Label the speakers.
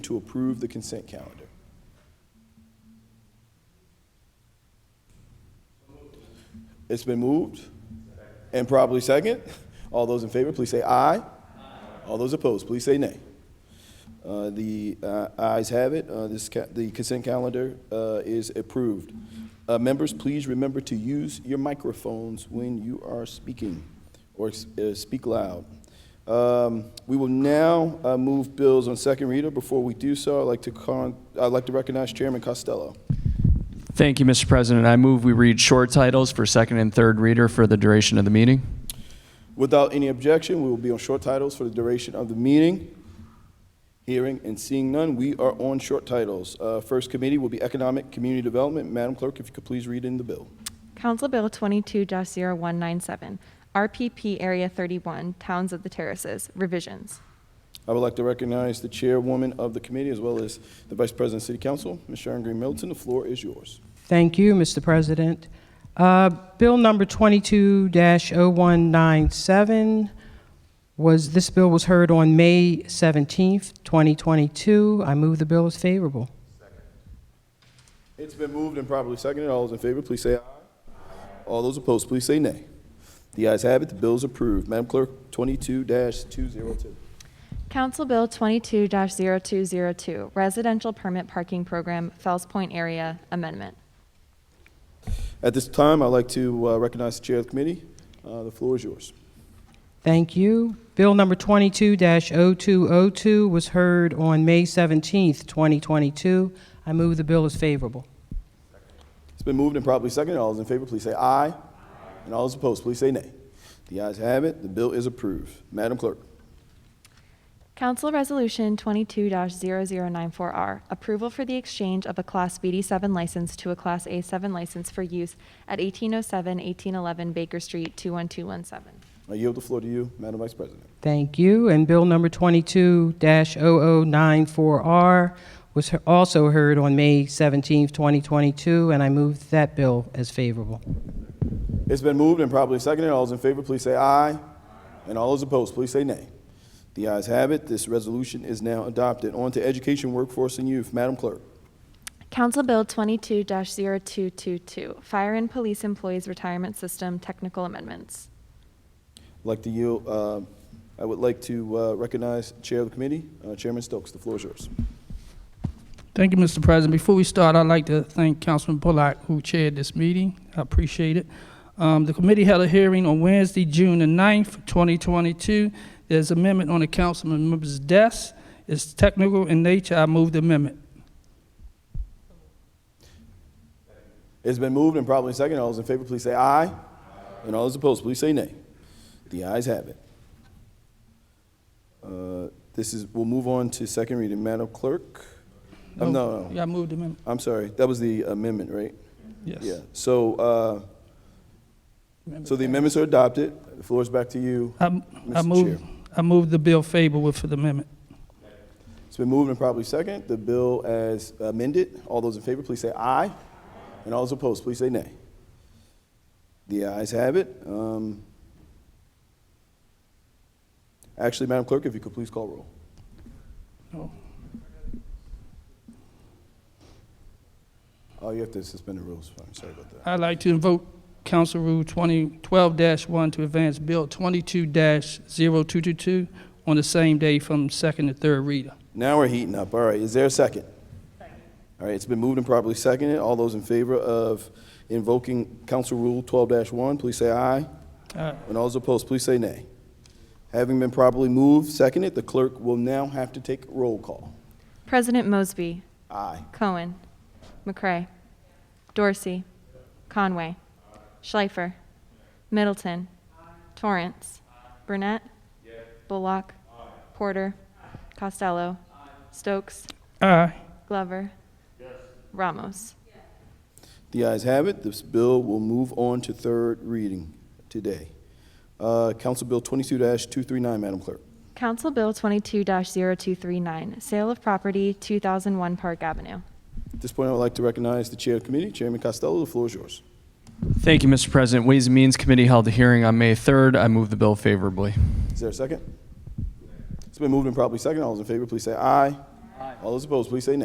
Speaker 1: to approve the consent calendar. It's been moved and probably second. All those in favor, please say aye. All those opposed, please say nay. Uh, The uh, ayes have it. Uh, This, ca- the consent calendar uh, is approved. Uh, Members, please remember to use your microphones when you are speaking or s- uh, speak loud. Um, We will now uh, move bills on second reader. Before we do so, I'd like to, con- I'd like to recognize Chairman Costello.
Speaker 2: Thank you, Mr. President. I move we read short titles for second and third reader for the duration of the meeting.
Speaker 1: Without any objection, we will be on short titles for the duration of the meeting. Hearing and seeing none, we are on short titles. Uh, First committee will be Economic Community Development. Madam Clerk, if you could please read in the bill.
Speaker 3: Council Bill 22-0197, RPP Area 31, Towns of the Terraces, revisions.
Speaker 1: I would like to recognize the chairwoman of the committee as well as the vice president of city council, Ms. Sharon Green Middleton. The floor is yours.
Speaker 4: Thank you, Mr. President. Uh, Bill number 22-0197 was, this bill was heard on May 17th, 2022. I move the bill is favorable.
Speaker 1: It's been moved and properly seconded. All those in favor, please say aye. All those opposed, please say nay. The ayes have it. The bill is approved. Madam Clerk, 22-202.
Speaker 3: Council Bill 22-0202, Residential Permit Parking Program, Fells Point Area Amendment.
Speaker 1: At this time, I'd like to uh, recognize the chair of the committee. Uh, The floor is yours.
Speaker 4: Thank you. Bill number 22-0202 was heard on May 17th, 2022. I move the bill is favorable.
Speaker 1: It's been moved and properly seconded. All those in favor, please say aye. And all those opposed, please say nay. The ayes have it. The bill is approved. Madam Clerk.
Speaker 3: Council Resolution 22-0094R, Approval for the Exchange of a Class BD7 License to a Class A7 License for Use at 1807, 1811 Baker Street, 21217.
Speaker 1: I yield the floor to you, Madam Vice President.
Speaker 4: Thank you. And Bill number 22-0094R was he- also heard on May 17th, 2022, and I move that bill as favorable.
Speaker 1: It's been moved and properly seconded. All those in favor, please say aye. And all those opposed, please say nay. The ayes have it. This resolution is now adopted. On to Education, Workforce, and Youth. Madam Clerk.
Speaker 3: Council Bill 22-0222, Fire and Police Employees Retirement System Technical Amendments.
Speaker 1: I'd like to yield, uh, I would like to uh, recognize Chair of the Committee, uh, Chairman Stokes. The floor is yours.
Speaker 5: Thank you, Mr. President. Before we start, I'd like to thank Councilman Bullock, who chaired this meeting. I appreciate it. Um, The committee held a hearing on Wednesday, June the 9th, 2022. There's amendment on the councilman member's desk. It's technical in nature. I move the amendment.
Speaker 1: It's been moved and properly seconded. All those in favor, please say aye. And all those opposed, please say nay. The ayes have it. Uh, This is, we'll move on to second reading. Madam Clerk? Oh, No, no,
Speaker 5: Yeah, I moved the amendment,
Speaker 1: I'm sorry. That was the amendment, right?
Speaker 5: yes.
Speaker 1: Yeah, so, uh, so the amendments are adopted. The floor is back to you.
Speaker 5: I I
Speaker 1: Mr.
Speaker 5: move,
Speaker 1: Chair.
Speaker 5: I move the bill favorable for the amendment.
Speaker 1: It's been moved and properly seconded. The bill as amended. All those in favor, please say aye. And all those opposed, please say nay. The ayes have it. Um, Actually, Madam Clerk, if you could please call roll.
Speaker 5: No.
Speaker 1: Oh, you have to suspend the rules. I'm sorry about that.
Speaker 5: I'd like to invoke Council Rule 2012-1 to advance Bill 22-0222 on the same day from second to third reader.
Speaker 1: Now we're heating up. All right, is there a second? All right, it's been moved and properly seconded. All those in favor of invoking Council Rule 12-1, please say aye.
Speaker 5: Aye.
Speaker 1: And all those opposed, please say nay. Having been properly moved, seconded, the clerk will now have to take roll call.
Speaker 3: President Mosby,
Speaker 1: Aye.
Speaker 3: Cohen, McCray, Dorsey, Conway, Schleifer, Middleton, Torrance, Burnett, Bullock, Porter, Costello, Stokes,
Speaker 5: Aye.
Speaker 3: Glover, Ramos.
Speaker 1: The ayes have it. This bill will move on to third reading today. Uh, Council Bill 22-239, Madam Clerk.
Speaker 3: Council Bill 22-0239, Sale of Property, 2001 Park Avenue.
Speaker 1: At this point, I would like to recognize the Chair of the Committee, Chairman Costello. The floor is yours.
Speaker 2: Thank you, Mr. President. Ways and Means Committee held a hearing on May 3rd. I move the bill favorably.
Speaker 1: Is there a second? It's been moved and properly seconded. All those in favor, please say aye. All those opposed, please say nay.